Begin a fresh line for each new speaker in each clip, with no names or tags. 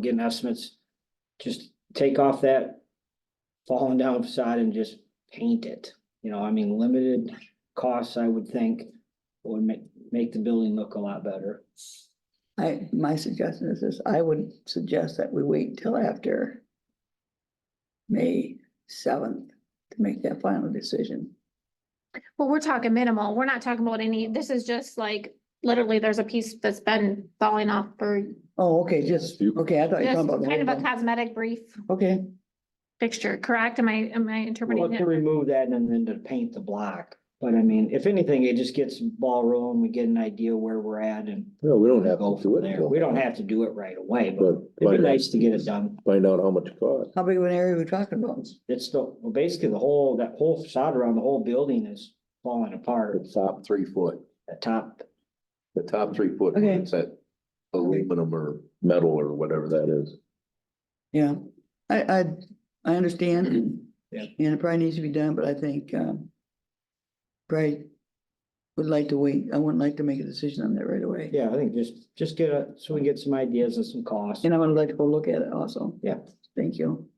getting estimates, just take off that falling down facade and just paint it. You know, I mean, limited costs, I would think, would make, make the building look a lot better.
I, my suggestion is this, I would suggest that we wait till after May seventh to make that final decision.
Well, we're talking minimal. We're not talking about any, this is just like, literally, there's a piece that's been falling off for
Oh, okay, just,
You-
okay, I thought you were
just
talking about. the
kind of
whole
a
thing.
cosmetic brief
Okay,
fixture, correct? Am I, am I
Well,
interpreting
to
it?
remove that and then to paint the block. But I mean, if anything, it just gets ball rolling, we get an idea where we're at and
No, we don't have
go
to do
from
it.
there.
until-
We don't have to do it right away, but
But
it'd
find
be
out-
nice to get it done.
Find out how much it costs.
how big of an area are we talking about?
It's the, well, basically the whole, that whole facade around the whole building is falling apart,
The top three foot,
the top.
the top three foot,
Okay.
it's that aluminum or
metal or whatever that is.
Yeah, I, I, I understand.
Yeah.
And it probably needs to be done, but I think, um, probably would like to wait. I wouldn't like to make a decision on that right away.
Yeah, I think just, just get a, so we can get some ideas and some costs.
And I would like to go look at it also.
Yeah.
Thank you.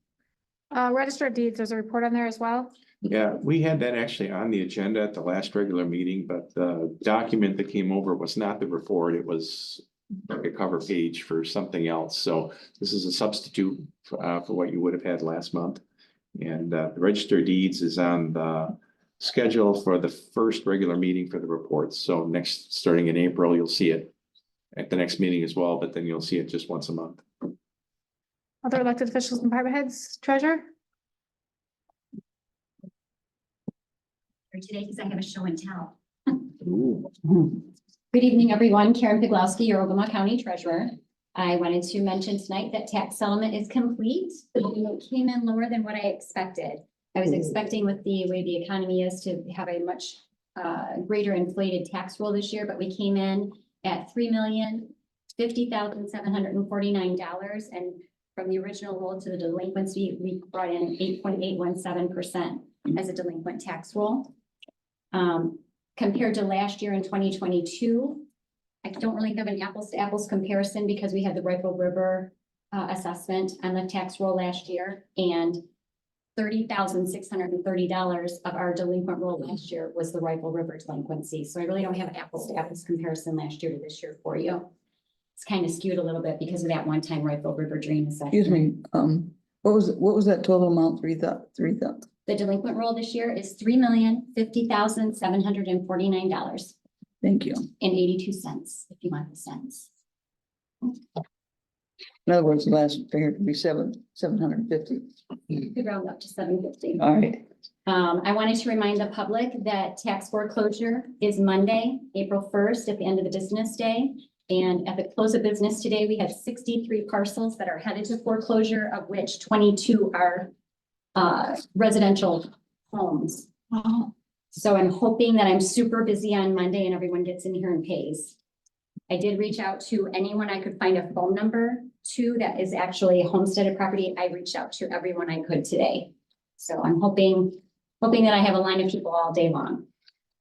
Uh, register of deeds, there's a report on there as well.
Yeah, we had that actually on the agenda at the last regular meeting, but the document that came over was not the report, it was like a cover page for something else, so this is a substitute uh for what you would have had last month. And uh the register of deeds is on the schedule for the first regular meeting for the report, so next, starting in April, you'll see it at the next meeting as well, but then you'll see it just once a month.
Other elected officials and department heads, treasurer?
for today because I have a show and tell.
Ooh.
Good evening, everyone. Karen Piglowski, your Ogama County Treasurer. I wanted to mention tonight that tax settlement is complete. It came in lower than what I expected. I was expecting with the way the economy is to have a much uh, greater inflated tax roll this year, but we came in at three million fifty thousand seven hundred and forty-nine dollars and from the original roll to the delinquency, we brought in eight point eight one seven percent as a delinquent tax roll. Um, compared to last year in twenty twenty-two. I don't really have an apples to apples comparison because we had the Rifle River uh, assessment on the tax roll last year and thirty thousand six hundred and thirty dollars of our delinquent roll last year was the Rifle River delinquency. So I really don't have an apples to apples comparison last year to this year for you. It's kind of skewed a little bit because of that one-time Rifle River dream assessment.
Excuse me, um, what was, what was that total amount? Three thou, three thou?
The delinquent roll this year is three million fifty thousand seven hundred and forty-nine dollars
Thank you.
and eighty-two cents, if you want the cents.
In other words, the last figure could be seven, seven hundred and fifty.
You could round up to seven fifty.
All right,
Um, I wanted to remind the public that tax foreclosure is Monday, April first, at the end of the business day. And at the close of business today, we have sixty-three parcels that are headed to foreclosure, of which twenty-two are uh, residential homes. So I'm hoping that I'm super busy on Monday and everyone gets in here and pays. I did reach out to anyone I could find a phone number to that is actually a homesteaded property. I reached out to everyone I could today. So I'm hoping, hoping that I have a line of people all day long.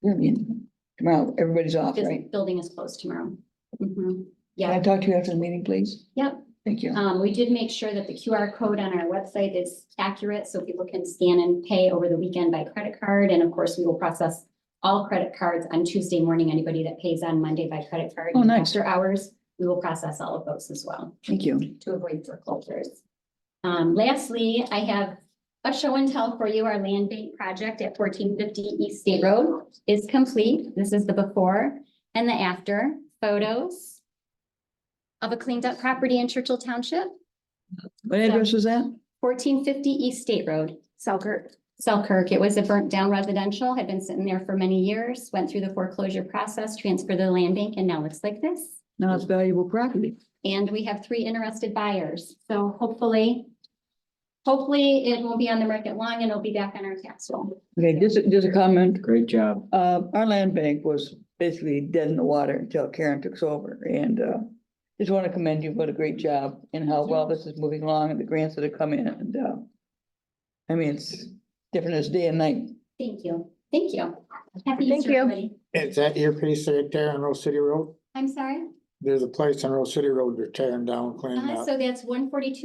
I mean, tomorrow, everybody's off,
This
right?
building is closed tomorrow. Mhm.
Can I
Yeah,
talk to you after the meeting, please?
Yep.
Thank you.
um, we did make sure that the QR code on our website is accurate, so people can scan and pay over the weekend by credit card. And of course, we will process all credit cards on Tuesday morning. Anybody that pays on Monday by credit card.
Oh, nice.
After hours, we will process all of those as well.
Thank you.
to avoid foreclosures. Um, lastly, I have a show and tell for you. Our land bank project at fourteen fifty East State Road is complete. This is the before and the after photos of a cleaned up property in Churchill Township,
What address was that?
fourteen fifty East State Road.
Selkirk.
Selkirk, it was a burnt down residential, had been sitting there for many years, went through the foreclosure process, transferred to the land bank, and now looks like this.
Now it's valuable property.
And we have three interested buyers, so hopefully. Hopefully, it won't be on the market long and it'll be back on our tax roll.
Okay, just, a- just a comment.
Great job.
Uh, our land bank was basically dead in the water until Karen took over and, uh, just want to commend you. What a great job and how well this is moving along and the grants that have come in and, uh, I mean, it's different as day and night.
Thank you, thank you. Happy
Thank
Easter,
you.
everybody.
Is that your piece right there on Rose City Road?
I'm sorry,
there's a place on Rose City Road they're tearing down, cleaning
Uh,
up.
Uh-huh, so that's one forty-two